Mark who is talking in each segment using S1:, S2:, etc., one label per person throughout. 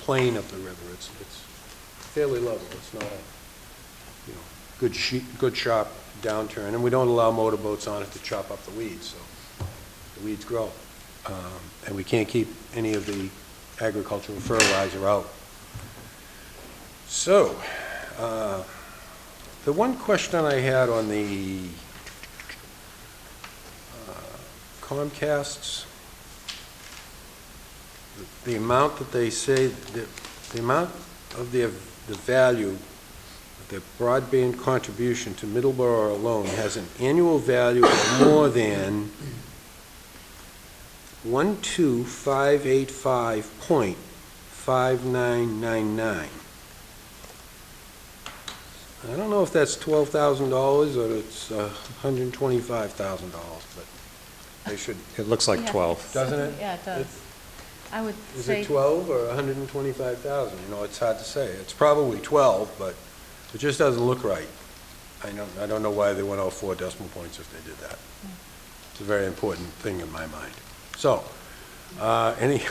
S1: plane of the river. It's, it's fairly level. It's not a, you know, good sheet, good sharp downturn. And we don't allow motorboats on it to chop up the weeds, so the weeds grow. Um, And we can't keep any of the agricultural fertilizer out. So, uh, the one question I had on the uh, Comcast's, the- the amount that they say, the, the amount of their, the value, of their broadband contribution to Middleborough alone has an annual value of more than 12585.5999. I don't know if that's twelve thousand dollars or it's a hundred and twenty-five thousand dollars, but they should,
S2: It looks like
S3: Yeah,
S2: 12.
S1: Doesn't it?
S3: Yeah, it does. I would
S1: is
S3: say,
S1: it twelve or a hundred and twenty-five thousand? You know, it's hard to say. It's probably twelve, but it just doesn't look right. I don't, I don't know why they went all four decimal points if they did that. It's a very important thing in my mind. So, uh, any,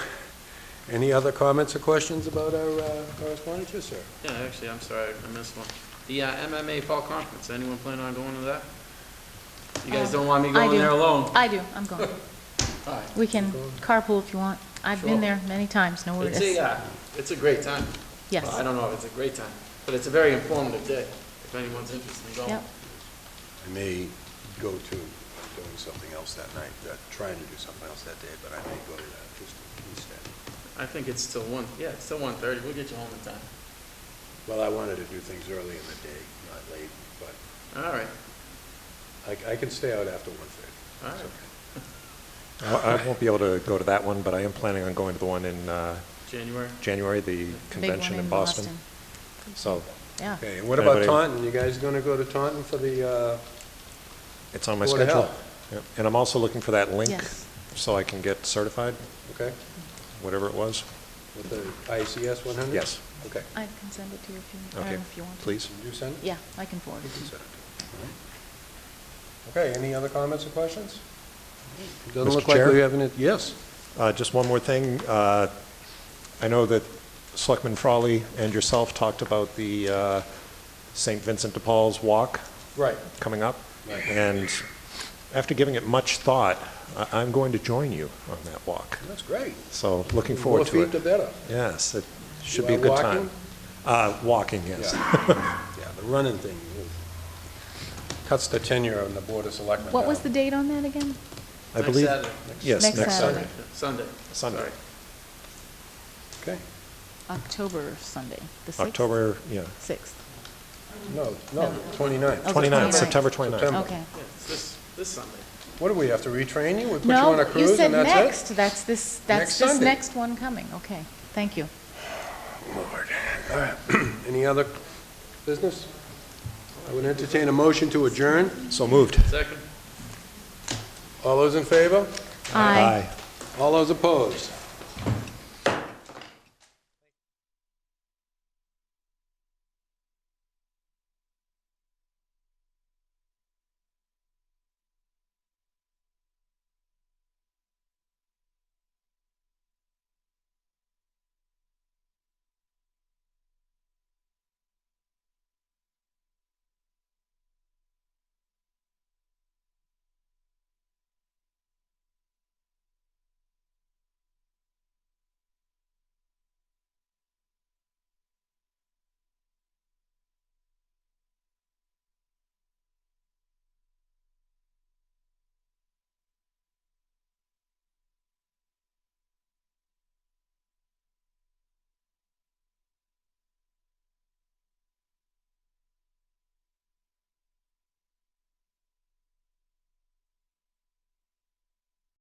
S1: any other comments or questions about our uh, correspondence, Yes, sir?
S4: Yeah, actually, I'm sorry, I missed one. The uh, MMA Fall Conference, anyone planning on going to that? You guys
S3: Um,
S4: don't want me
S3: I
S4: going
S3: do.
S4: there alone?
S3: I do, I'm going.
S4: All right.
S3: We can carpool if you want. I've
S4: Sure.
S3: been there many times, no
S4: It's a,
S3: worries.
S4: uh, it's a great time. Well, I
S3: Yes,
S4: don't know if it's a great time, but it's a very informative day, if anyone's interested in going.
S3: Yep.
S1: I may go to doing something else that night, uh, trying to do something else that day, but I may go to that just instead.
S4: I think it's till one, yeah, it's till one thirty, we'll get you home in time.
S1: Well, I wanted to do things early in the day, not late, but
S4: All right,
S1: I, I can stay out after one thirty.
S4: all right.
S2: I I won't be able to go to that one, but I am planning on going to the one in uh,
S4: January,
S2: January, the
S3: big one
S2: convention in
S3: in
S2: Boston.
S3: Boston.
S2: So
S3: Yeah,
S1: Okay, and what about
S2: Anybody-
S1: Taunton? You guys gonna go to Taunton for the, uh,
S2: it's on my
S1: Board of
S2: schedule.
S1: Health.
S2: Yep. And I'm also looking for that link
S3: Yes.
S2: so I can get certified,
S1: okay,
S2: whatever it was.
S1: with the ICS one hundred?
S2: Yes.
S1: Okay.
S3: I can send it to you if you, I don't
S2: Okay,
S3: know if you want. to.
S2: please.
S1: Did you send it?
S3: Yeah, I can forward
S1: You
S3: it.
S1: can send it. Okay, any other comments or questions? Doesn't
S2: Mr.
S1: look like
S2: Chair?
S1: we have any, yes?
S2: Uh, Just one more thing. Uh, I know that Selectman Frawley and yourself talked about the uh, St. Vincent de Paul's Walk
S1: Right.
S2: coming up.
S1: Right.
S2: And after giving it much thought, I- I'm going to join you on that walk.
S1: That's great.
S2: So looking forward to
S1: More feet, the
S2: it.
S1: better.
S2: Yes, it
S1: You
S2: should be a
S1: are
S2: good
S1: walking?
S2: time. Uh, Walking, yes.
S1: Yeah, the running thing cuts the tenure on the Board of
S2: Uh,
S1: Selectmen.
S3: What
S1: down.
S3: was the date on that again?
S2: I
S4: next
S2: believe,
S4: Saturday,
S2: yes,
S3: Next
S2: next
S3: Saturday.
S2: Saturday.
S4: Sunday.
S2: Sunday,
S4: Sorry.
S1: Okay,
S3: October Sunday, the 6th?
S2: October, yeah,
S3: 6th.
S1: no, no, 29th.
S3: Oh,
S2: 29th,
S3: 29th.
S2: September 29th.
S1: September.
S3: Okay.
S4: Yeah, it's this, this Sunday.
S1: What do we have to retrain you? We put you on
S3: No,
S1: a
S3: you
S1: cruise
S3: said
S1: and that's it?
S3: next, that's this,
S1: Next
S3: that's this
S1: Sunday.
S3: next one coming, okay, thank you.
S1: Lord. All right. Any other business? I would entertain a motion to adjourn.
S2: So moved.
S4: Second?
S1: All those in favor?
S3: Aye.
S1: All those opposed?